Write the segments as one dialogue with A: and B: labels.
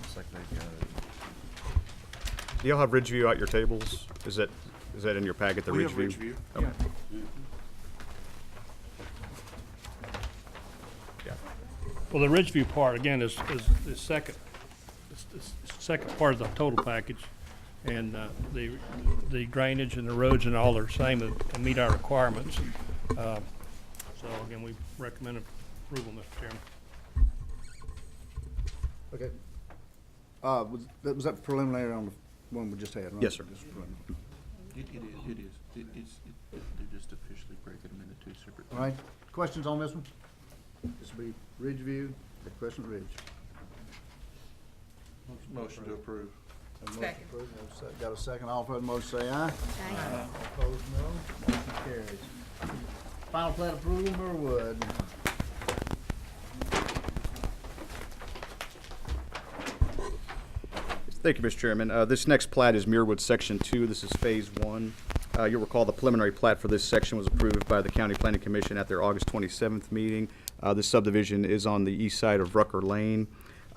A: Looks like they've got it.
B: Do y'all have Ridgeview at your tables? Is that, is that in your packet, the Ridgeview?
C: We have Ridgeview.
B: Okay.
C: Yeah.
B: Yeah.
D: Well, the Ridgeview part, again, is, is the second, it's the second part of the total package. And uh, the, the drainage and the roads and all are same, uh, meet our requirements. Uh, So again, we recommend approval, Mr. Chairman.
E: Okay. Uh, was, that, was that preliminary on the one we just had, right?
B: Yes, sir.
E: Just preliminary.
C: It, it is, it is, it, it's, it- they're just officially breaking them into two separate.
E: All right, questions on this one? This will be Ridgeview at Crescent Ridge.
C: Motion to approve.
E: Have a motion
F: Second.
E: approved. Have a sec- Got a second, all in favor, say aye.
F: Aye.
E: Opposed, no. Motion carries. Final plat approval, Norwood.
B: Thank you, Mr. Chairman. Uh, This next plat is Muirwood Section 2. This is Phase 1. Uh, You'll recall the preliminary plat for this section was approved by the County Planning Commission at their August 27th meeting. Uh, This subdivision is on the east side of Rucker Lane.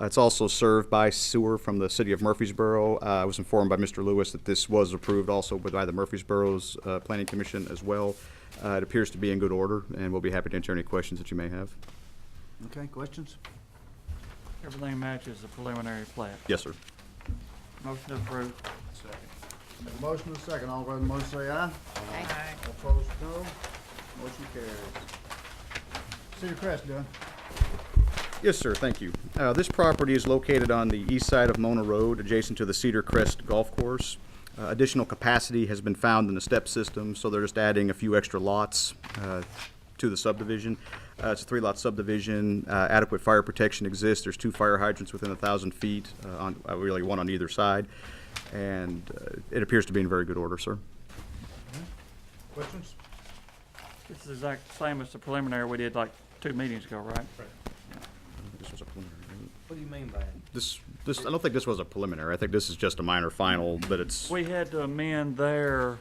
B: Uh, It's also served by sewer from the city of Murfreesboro. Uh, I was informed by Mr. Lewis that this was approved also by the Murfreesboro's uh, Planning Commission as well. Uh, It appears to be in good order, and we'll be happy to answer any questions that you may have.
E: Okay, questions?
G: Everything matches the preliminary plat.
B: Yes, sir.
G: Motion to approve.
E: Have a motion and a second, all in favor, motion say aye.
F: Aye.
E: Opposed, no. Motion carries. Cedar Crest done.
B: Yes, sir, thank you. Uh, This property is located on the east side of Mona Road, adjacent to the Cedar Crest Golf Course. Uh, Additional capacity has been found in the step system, so they're just adding a few extra lots uh, to the subdivision. Uh, It's a three-lot subdivision, Uh, adequate fire protection exists, there's two fire hydrants within a 1,000 feet, uh, on uh, really one on either side, and uh, it appears to be in very good order, sir.
E: Questions?
G: This is exact same as the preliminary we did like two meetings ago, right?
B: This was a preliminary, right?
H: What do you mean by it?
B: This, this, I don't think this was a preliminary, I think this is just a minor final, but it's...
G: We had to amend their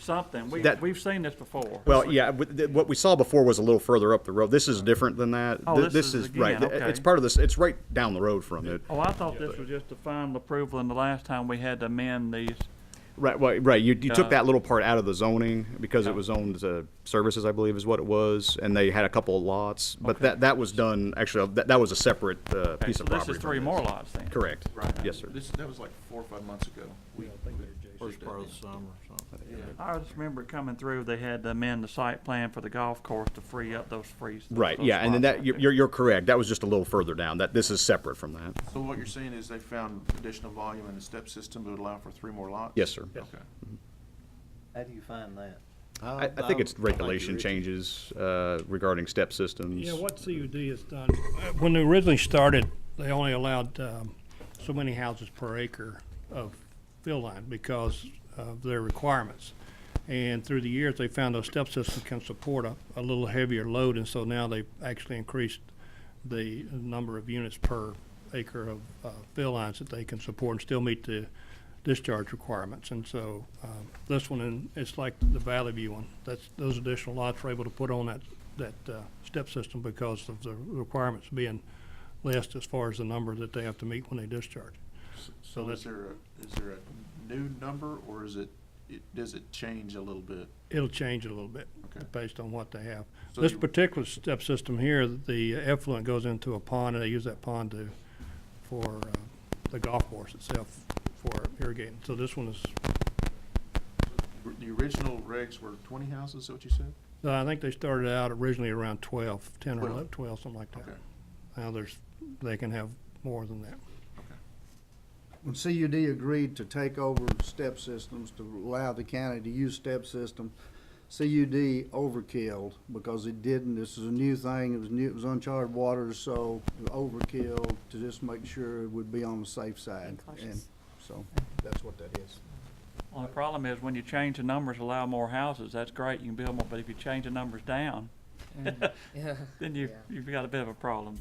G: something. We,
B: That-
G: we've seen this before.
B: Well, yeah, with the- what we saw before was a little further up the road. This is different than that.
G: Oh,
B: Th-
G: this is
B: right.
G: again,
B: th- It's
G: okay.
B: part of this, it's right down the road from it.
G: Oh, I thought this was just the final approval and the last time we had to amend these.
B: Right, right, right. You, you took
G: Uh,
B: that little part out of the zoning because it was zoned as a services, I believe is what it was, and they had a couple of lots. But that, that was done, actually, that, that was a separate, uh,
G: Okay,
B: piece
G: so
B: of property.
G: This is
B: from
G: three
B: this.
G: more lots then.
B: Correct. Yes, sir.
C: This, that was like four or five months ago. We we did that then.
H: summer or something.
G: I just remember it coming through, they had to amend the site plan for the golf course to free up those free.
B: Right,
G: those
B: yeah, and then
G: spots
B: that,
G: right
B: you're,
G: there.
B: you're- you're correct. That was just a little further down. That, this is separate from that.
C: So what you're saying is they found additional volume in the step system that would allow for three more lots?
B: Yes, sir.
C: Okay.
H: How do you find that?
B: I, I think it's regulation changes, uh, regarding step systems.
D: Yeah, what CUD has done, Uh, when they originally started, they only allowed um, so many houses per acre of fill line because of their requirements. And through the years, they found those step systems can support a, a little heavier load, and so now they've actually increased the number of units per acre of uh, fill lines that they can support and still meet the discharge requirements. And so um, this one, and it's like the Valley View one, that's, those additional lots were able to put on that, that uh, step system because of the requirements being list as far as the number that they have to meet when they discharge.
C: So
D: that's-
C: is there, a- is there a new number or is it, it, does it change a little bit?
D: It'll change a little bit
C: Okay.
D: based on what they have.
C: So
D: This
C: you-
D: particular step system here, the effluent goes into a pond, and they use that pond to, for uh, the golf course itself for irrigating. So this one is,
C: The original regs were twenty houses, is that what you said?
D: uh, I think they started out originally around 12, 10 or
C: Well,
D: 11, 12, something like that.
C: Okay.
D: Now there's, they can have more than that.
E: When CUD agreed to take over step systems, to allow the county to use step systems, CUD overkilled because it didn't, this is a new thing, it was new, it was uncharted waters, so it overkill to just make sure it would be on the safe side.
F: Being cautious.
E: And So, that's what that is.
G: Well, the problem is when you change the numbers, allow more houses, that's great, you can build more, but if you change the numbers down,
F: Mm, Yeah.
G: then you, you've got a bit of a problem.